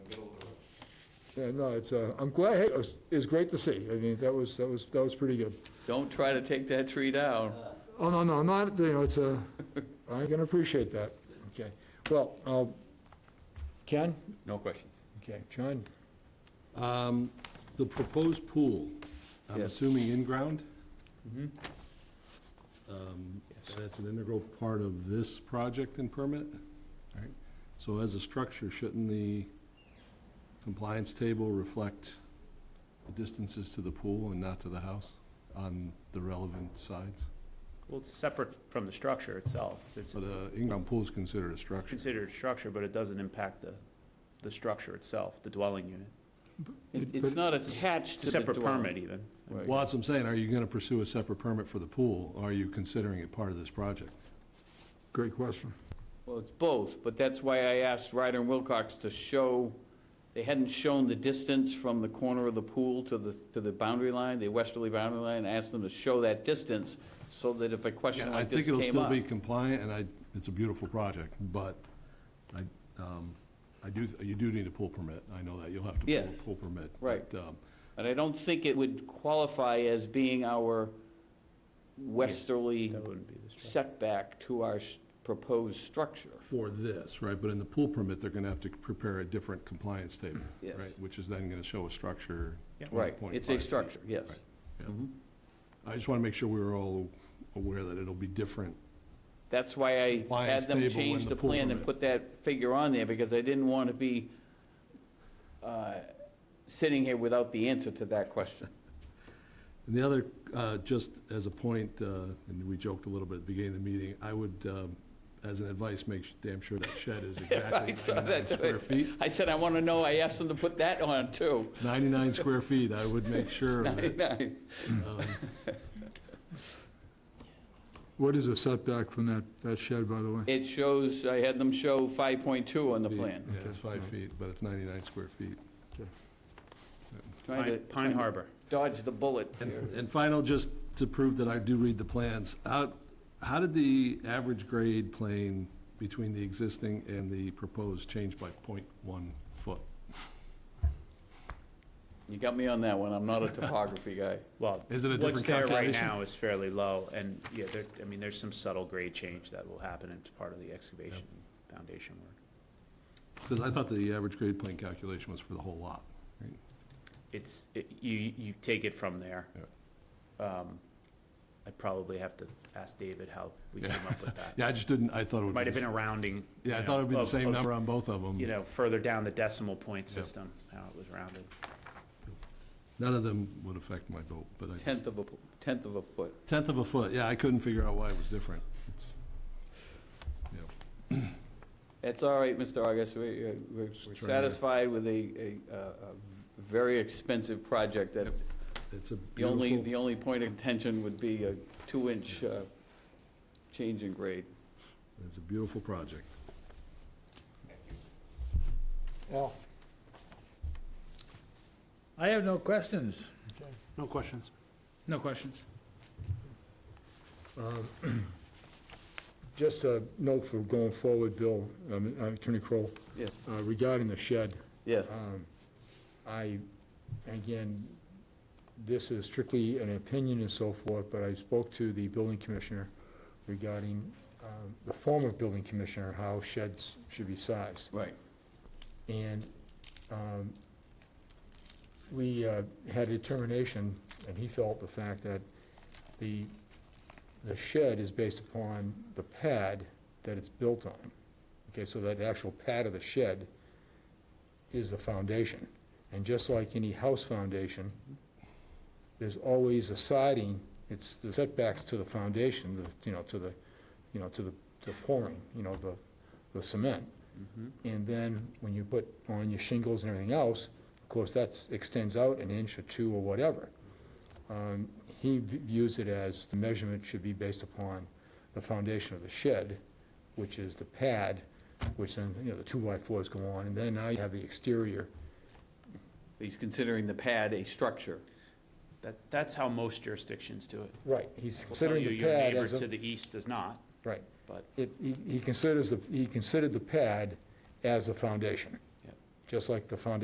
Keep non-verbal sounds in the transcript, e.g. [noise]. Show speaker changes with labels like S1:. S1: Yeah, no, it's, uh, I'm glad, hey, it was, it was great to see. I mean, that was, that was, that was pretty good.
S2: Don't try to take that tree down.
S1: Oh, no, no, I'm not, you know, it's uh, I can appreciate that. Okay. Well, uh, Ken?
S3: No questions.
S1: Okay, John?
S4: Um, The proposed pool, I'm
S3: Yes.
S4: assuming in-ground? Um, And it's an integral part of this project and permit? All right. So as a structure, shouldn't the compliance table reflect the distances to the pool and not to the house on the relevant sides?
S5: Well, it's separate from the structure itself. It's
S4: So
S2: uh,
S4: the in-ground pool is considered a structure.
S5: considered a structure, but it doesn't impact the, the structure itself, the dwelling unit.
S2: It-
S1: But-
S2: It's not
S5: It's
S2: attached
S5: a
S2: to the
S5: separate permit
S2: dwelling.
S5: even.
S2: Right.
S4: Well, that's what I'm saying, are you gonna pursue a separate permit for the pool, or are you considering it part of this project?
S1: Great question.
S2: Well, it's both, but that's why I asked Ryder and Wilcox to show, they hadn't shown the distance from the corner of the pool to the, to the boundary line, the westerly boundary line. I asked them to show that distance so that if a question
S4: Yeah, I
S2: like this
S4: think it'll
S2: came
S4: still
S2: up.
S4: be compliant, and I, it's a beautiful project, but I, um, I do, you do need a pool permit. I know that, you'll have to pull
S2: Yes.
S4: a pool permit.
S2: Right.
S4: but, um,
S2: And I don't think it would qualify as being our westerly
S5: That wouldn't be the structure.
S2: setback to our s- proposed structure.
S4: For this, right, but in the pool permit, they're gonna have to prepare a different compliance table,
S2: Yes.
S4: right? Which is then gonna show a structure.
S5: Yeah.
S2: Right, it's a
S4: 20.5 feet.
S2: structure, yes.
S4: Right. Yeah.
S2: Mhm.
S4: I just wanna make sure we were all aware that it'll be different.
S2: That's why I had
S4: Compliance
S2: them
S4: table
S2: change
S4: and
S2: the
S4: the pool
S2: plan and
S4: permit.
S2: put that figure on there, because I didn't want to be uh, sitting here without the answer to that question.
S4: And the other, uh, just as a point, uh, and we joked a little bit at the beginning of the meeting, I would, um, as an advice, make sh- damn sure that shed is
S2: [laughs]
S4: exactly
S2: I saw
S4: 99
S2: that,
S4: square feet.
S2: I said, I want to know, I asked them to put that on, too.
S4: It's 99 square feet, I would
S2: [laughs]
S4: make sure of it. Um,
S1: What is the setback from that, that shed, by the way?
S2: It shows, I had them show 5.2 on the
S4: feet.
S2: plan.
S4: Yeah, it's five feet, but it's 99 square feet.
S2: Trying to-
S5: Pine Pine Harbor.
S2: Dodge the bullet.
S4: And and final, just to prove that I do read the plans, how, how did the average grade plane between the existing and the proposed change by .1 foot?
S2: You got me on that one, I'm not a topography
S4: [laughs]
S2: guy.
S5: Well,
S4: Is it a different
S5: what's there right
S4: calculation?
S5: now is fairly low, and, yeah, there, I mean, there's some subtle grade change that will happen as part of the excavation and foundation work.
S4: Because I thought the average grade plane calculation was for the whole lot.
S5: It's, it- you, you take it from there. Um, I'd probably have to ask David how we came
S4: Yeah.
S5: up with that.
S4: [laughs] Yeah, I just didn't, I thought it would be.
S5: Might have
S4: the
S5: been a rounding.
S4: s- Yeah, I
S5: you
S4: thought it
S5: know,
S4: would be the
S5: of-
S4: same
S5: of,
S4: number on both of them.
S5: You know, further down the decimal point
S4: Yeah.
S5: system, how it was rounded.
S4: None of them would affect my vote, but I.
S2: Tenth of a, tenth of a foot.
S4: Tenth of a foot, yeah, I couldn't figure out why it was different. It's- yeah.
S2: That's all right, Mr. August, We- uh, we're
S4: trying to-
S2: satisfied with a, a- a a very expensive project that
S4: Yep. It's a
S2: The only,
S4: beautiful,
S2: the only point of contention would be a two-inch uh, change in grade.
S4: it's a beautiful project.
S1: Al?
S6: I have no questions. No questions.
S1: Um, [clears throat] Just a note for going forward, Bill, um, Attorney Crowe,
S2: Yes,
S1: uh, regarding the shed.
S2: yes.
S1: Um, I, again, this is strictly an opinion and so forth, but I spoke to the building commissioner regarding um, the former building commissioner, how sheds should be sized.
S2: Right.
S1: And um, we uh, had a determination, and he felt the fact that the, the shed is based upon the pad that it's built on. Okay, so that actual pad of the shed is the foundation. And just like any house foundation, there's always a siding, it's the setbacks to the foundation, the, you know, to the, you know, to the, to pouring, you know, the, the cement. And then when you put on your shingles and everything else, of course, that extends out an inch or two or whatever. Um, He v- views it as the measurement should be based upon the foundation of the shed, which is the pad, which then, you know, the two-by-fours go on, and then now you have the exterior.
S2: He's considering the pad a structure.
S5: That, that's how most jurisdictions do it.
S1: Right. He's
S5: We'll tell
S1: considering
S5: you
S1: the
S5: your
S1: pad
S5: neighbor
S1: as
S5: to
S1: a,
S5: the east does not,
S1: right.
S5: but
S1: It, he- he considers, the he considered the pad as a foundation.
S5: Yep.
S1: Just like the foundation